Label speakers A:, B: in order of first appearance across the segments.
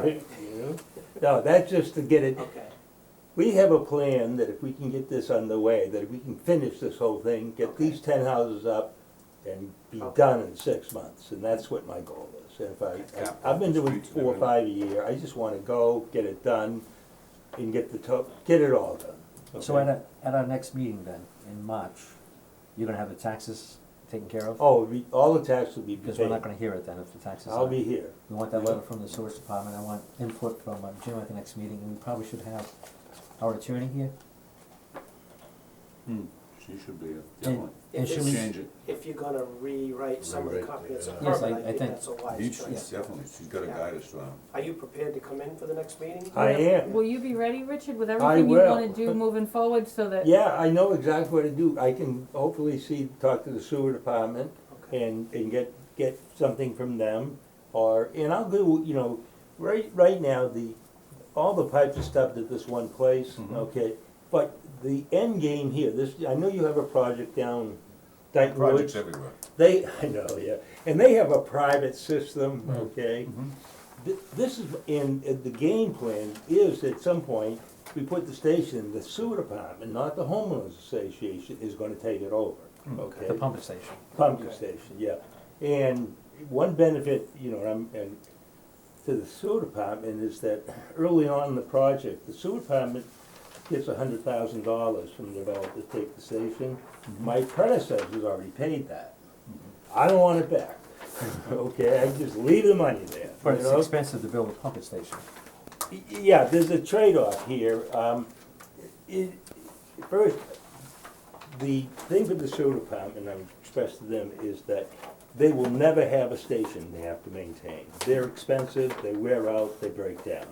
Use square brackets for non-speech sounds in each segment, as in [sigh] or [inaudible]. A: right? No, that's just to get it,
B: Okay,
A: we have a plan that if we can get this underway, that if we can finish this whole thing, get
B: Okay.
A: these ten houses up and be
B: Okay.
A: done in six months, and that's what my goal is. And if
B: Okay.
A: I, I- I've been doing
C: Streets and
A: four or
C: everything.
A: five a year, I just wanna go, get it done, and get the to, get it all done.
D: So at
A: okay?
D: our, at our next meeting then, in March, you're gonna have the taxes taken care of?
A: Oh, we- all the taxes will be
D: Because we're
A: paid,
D: not gonna hear it then if the taxes are.
A: I'll be here.
D: We want that letter from the source department, I want input from uh, Jim at the next meeting, and we probably should have our attorney here.
C: Hmm, she should be, a-
D: And-
C: definitely.
D: And should we,
C: Change it.
B: if you're gonna rewrite some of the
E: Rewrite,
B: comprehensive
D: yeah. Yes,
B: permit,
D: I- I
B: I think
D: think-
B: that's a wise
C: Each,
B: choice.
C: definitely, she's gotta
B: Yeah.
C: guide us um, around.
B: Are you prepared to come in for the next meeting?
D: Uh,
A: I am.
F: Will you be ready, Richard, with
A: I
F: everything you wanna
A: will.
F: do moving forward so that?
A: Yeah, I know exactly what to do. I can hopefully see, talk to the sewer department
B: Okay.
A: and, and get, get something from them. Or, and I'll do, you know, right, right now, the, all the pipes are stubbed at this one place,
C: Mhm.
A: okay? But the end game here, this, I know you have a project down Dyke
C: Projects
A: Woods.
C: everywhere.
A: They, [laughs] I know, yeah, and they have a private system, okay?
C: Mm-hmm.
A: Th- This is, and uh, the game plan is at some point, we put the station, the sewer department, not the homeowners association, is gonna take it over, okay?
D: the pump station,
A: pumping
B: Okay.
A: station, yeah. And one benefit, you know, and I'm, and to the sewer department is that early on in the project, the sewer department gets a hundred thousand dollars from the developer to take the station. My predecessor's already paid that. I don't want it back, okay, I just leave the money there,
D: but
A: you
D: it's
A: know?
D: expensive to build a pump station.
A: Y- Yeah, there's a trade-off here. Um, it, first, the thing with the sewer department, I've expressed to them, is that they will never have a station they have to maintain. They're expensive, they wear out, they break down.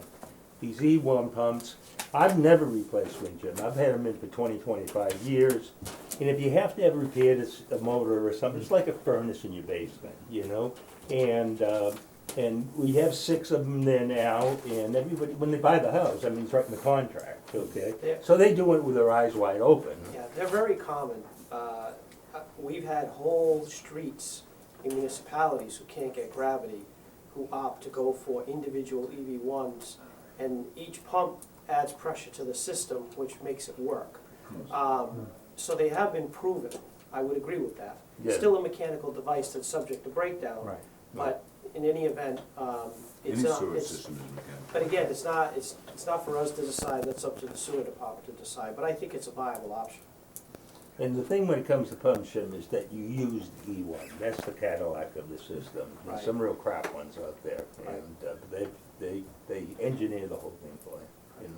A: These E one pumps, I've never replaced one, Jim. I've had them in for 20, 25 years. And if you have to have repaired, it's a motor or something, it's like a furnace in your basement, you know? And, uh, and we have six of them there now, and everybody, when they buy the house, I mean, it's right in the contract, okay?
B: Yeah.
A: So they do it with their eyes wide open.
B: Yeah, they're very common. Uh, uh, We've had whole streets in municipalities who can't get gravity, who opt to go for individual EV ones, and each pump adds pressure to the system, which makes it work. Um, So they have been proven, I would agree with that.
A: Yeah.
B: Still a mechanical device that's subject to
C: Oh.
B: breakdown.
D: Right.
B: But in any event, um,
C: Any
B: it's not,
C: sewer
B: it's,
C: system is mechanical.
B: but again, it's not, it's, it's not for us to decide, that's up to the sewer department to decide, but I think it's a viable option.
A: And the thing when it comes to pump shim is that you use the E one, that's the Cadillac of the system. There's
B: Right.
A: some real crap ones out there,
B: Right.
A: and uh, they, they, they engineer the whole thing for you, you know?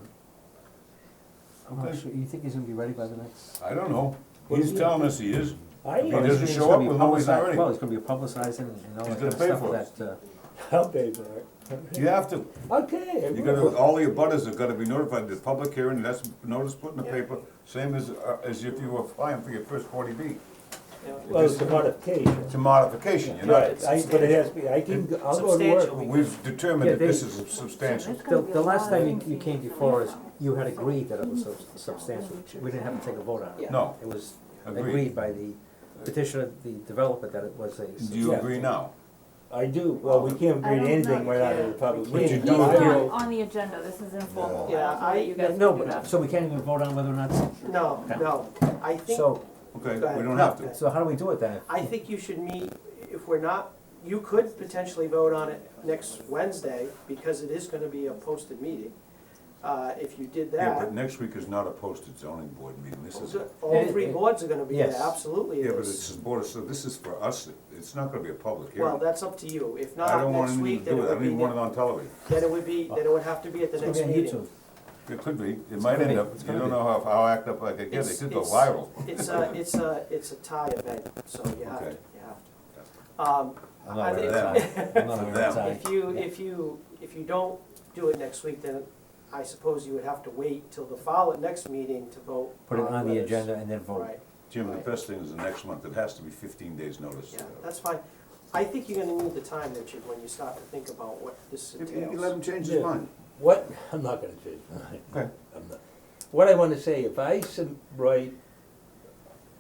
D: I'm not
C: Okay.
D: sure, you think he's gonna be ready by the next?
C: I don't know,
A: Well,
C: he's
A: yeah.
C: telling us he is,
A: I
C: He
D: Well,
A: am,
C: doesn't
D: it's- it's
C: show
D: gonna
C: up,
D: be
C: we'll know he's not
D: publicized-
C: ready.
D: Well, it's gonna be publicizing and all
C: He's
D: that
C: gonna
D: kind of
C: pay
D: stuff
C: for
D: that, uh,
A: I'll pay for it.
C: you have to,
A: Okay. I
C: you
A: will.
C: gotta, all the abutters have gotta be notified, there's public hearing, that's notice put in the
B: Yeah.
C: paper, same as, uh, as if you were applying for your first forty B.
B: You know,
A: Well, it's a modification.
C: It's a modification, you know,
A: Right, I, but it has to be, I can, go- I'll go to
B: Substantial.
A: work.
C: we've determined
D: Yeah,
C: that this
D: they-
C: is substantial.
D: The, the last time you, you came before us, you had agreed that it was sub- substantial, we didn't have to take a vote on it.
B: Yeah.
C: No,
D: It was
C: Agreed.
D: agreed by the petitioner, the developer, that it was a
C: do you
D: substantial.
C: agree now?
A: I do, well, we can't
F: I
A: read
F: don't
A: anything
F: know.
A: right out of the public
C: Would you
A: meeting.
F: He's
C: do it?
A: I
F: not
A: will-
F: on the agenda, this is informal.
B: Yeah,
F: I'll let
B: I-
F: you guys
D: No,
F: do that.
D: but, so we can't even vote on whether or not, it's-
B: No, no, I think,
D: so,
C: Okay,
B: Go ahead.
C: we don't have to.
D: so how do we do it then?
B: I think you should meet, if we're not, you could potentially vote on it next Wednesday, because it is gonna be a posted meeting. Uh, if you did
C: Yeah, but
B: that,
C: next week is not a posted zoning board meeting, this is,
B: so all three boards are gonna be there,
D: Yes.
B: absolutely. it
C: yeah, but
B: is.
C: it's a board, so this is for us, it's not gonna be a public
B: Well,
C: hearing.
B: that's up to you, if
C: I
B: not
C: don't want
B: next
C: anything
B: week,
C: to
B: then
C: do
B: it
C: with it, I
B: would
C: don't
B: be,
C: even want it
B: ne-
C: on television.
B: then it would be, then it would have to be at the
D: It's gonna
B: next
D: be on
B: meeting.
D: YouTube.
C: It could be, it might
D: gonna
C: end
D: be-
C: up,
D: it's
C: you
D: gonna
C: don't
D: be.
C: know how, how act up like I get, it
B: It's-
C: could go
B: it's-
C: viral.
B: It's a, it's a, it's a tie event, so you have to,
C: Okay.
B: you have to. Um,
D: I'm
B: I
D: not
B: think-
D: aware
B: [laughs]
D: of that. I'm not aware of that.
B: If you, if you, if you don't do it next week, then I suppose you would have to wait till the following, next meeting to vote.
D: Put it on the
B: whether it's-
D: agenda and then vote.
B: Right,
C: Jim, the best thing is the next month, it has to be fifteen days' notice.
B: yeah, that's fine. I think you're gonna need the time, Richard, when you start to think about what this
C: If you- you
B: entails.
C: Let him change his
A: Yeah.
C: mind.
A: What, [laughs] I'm not gonna change [laughs] my
C: Okay.
A: mind. I'm not. What I wanna say, if I sub- write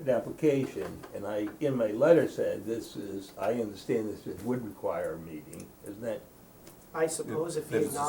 A: an application and I, in my letter said, this is, I understand this, it would require a meeting, isn't that
B: I suppose if
C: That
B: he's
C: it's a
B: not